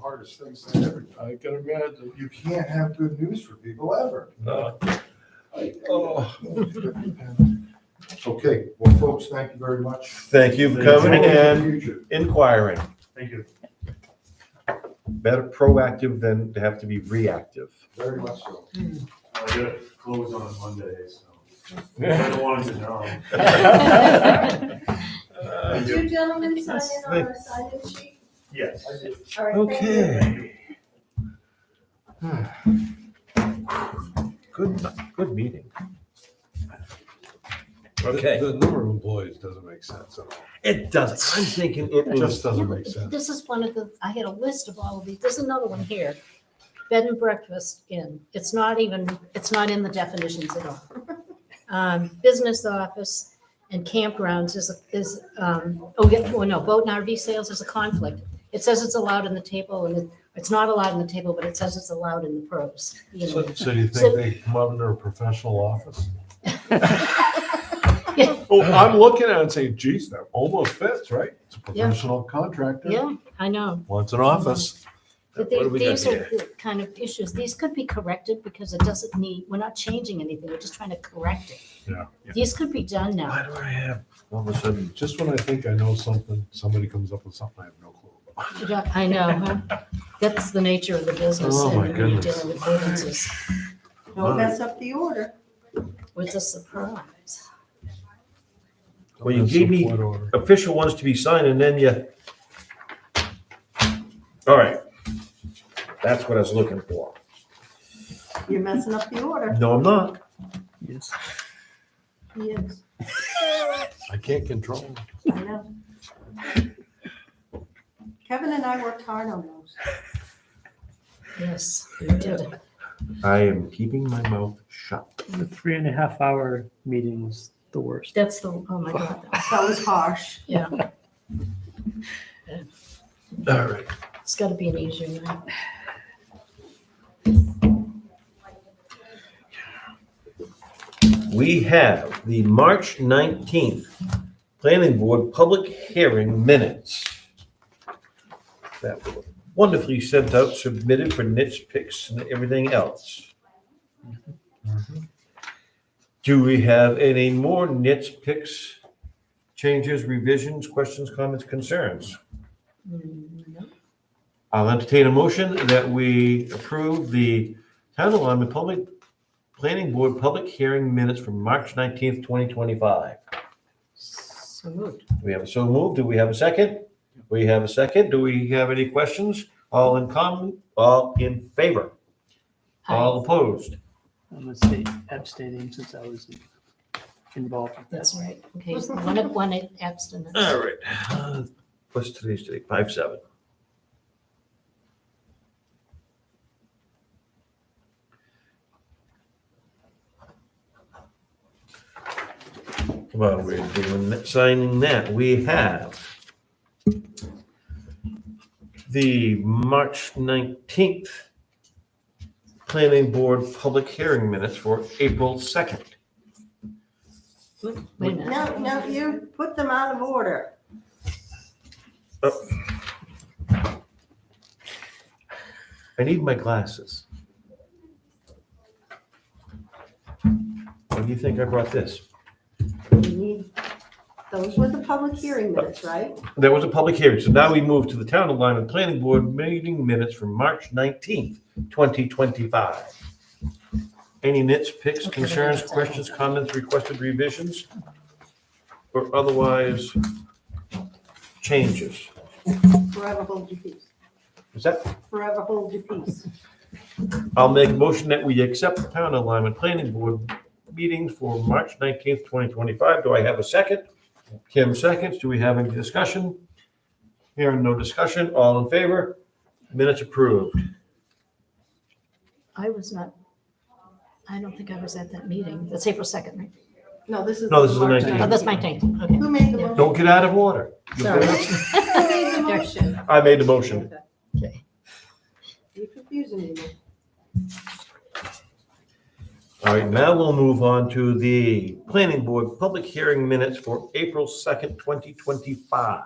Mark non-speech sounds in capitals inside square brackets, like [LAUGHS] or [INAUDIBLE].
hardest things to ever do. I can imagine. You can't have good news for people ever. Uh, [LAUGHS] [LAUGHS] Oh. Okay, well, folks, thank you very much. Thank you for coming and inquiring. Thank you. Better proactive than to have to be reactive. Very much so. I gotta close on Monday, so I Uh, don't want to know. Did you gentlemen sign in on our sign-in sheet? Yes. All right, thank you. Okay. Good, good meeting. Okay. The number of employees doesn't make sense at all. It does. Mm. I'm thinking It it is. just doesn't Yeah, make but sense. This is one of the, I had a list of all of these, there's another one here. Bed and breakfast in, it's not even, it's not in the definitions at all. Um, business office and campgrounds is, is, um, oh, yeah, well, no, boat and RV sales is a conflict. It says it's allowed in the table and it, it's not allowed in the table, but it says it's allowed in the pros. you know. So, so do you think So- they come out in their professional office? [LAUGHS] Yeah. Oh, I'm looking at it and saying, geez, that almost fits, right? It's a professional contractor. Yeah, I know. Wants an office. But What do they- we got these are here? the kind of issues, these could be corrected because it doesn't need, we're not changing anything, we're just trying to correct it. Yeah. These could be done now. Why do I have, all of a sudden, Just when I think I know something, somebody comes up with something I have no clue about. You don't- I know, huh? [LAUGHS] that's the nature of the business. Oh, and my when goodness. You're dealing with ordinances, Don't mess up the order. it's a surprise. Well, you gave me- Support order. official ones to be signed and then you. All right. That's what I was looking for. You're messing up the order. No, I'm not. Yes, I can't control it. I know. Kevin and I worked hard on those. Yes, you did it. I am keeping my mouth shut. The three and a half hour meetings, the worst. That's the, oh my God, that was- That was harsh. All right. it's got to be an easier one. We have the March 19th Planning Board Public Hearing Minutes. That were wonderfully sent out, submitted for nits, picks, and everything else. Do we have any more nits, picks, changes, revisions, questions, comments, concerns? Mm, no. I'll entertain a motion that we approve the Town of Lyman Public Planning Board Public Hearing Minutes from March 19th, 2025. So moved. Do we have a so moved? Do we have a second? We have a second. Do we have any questions? All in common, all in favor, all Aye. opposed? I'm gonna say abstaining since I was involved with That's this. right. Okay, so one, of- one abstinence. All right. Uh, What's today's date? Five, seven. Well, we're doing, that- signing that, we have the March nineteenth Planning Board Public Hearing Minutes for April second. Wait a minute. No, no, you put them out of order. I need my glasses. What do you think I brought this? We need- Those were the public hearing minutes, right? There was a public hearing, so now we move to the Town of Lyman Planning Board meeting minutes from March nineteenth, twenty twenty-five. Any nits, picks, Okay, concerns, that's- questions, comments, requested revisions, or otherwise changes? Forever hold your peace. Is that Forever hold your peace. I'll make a motion that we accept the town alignment planning board meetings for March nineteenth, twenty twenty-five. Do I have a second? Kim seconds. Do we have any discussion? Hearing no discussion. All in favor? Minutes approved. I was not, I don't think I was at that meeting. That's April 2nd, right? No, this is. No, this is the March 19th. Oh, that's my tank. Okay. Who made Yeah. the motion? Don't get out of order. You [LAUGHS] Sorry. get out- Who made the motion? I made the motion. Okay. You're confusing me. All right, now we'll move on to the planning board public hearing minutes for April second, twenty twenty-five.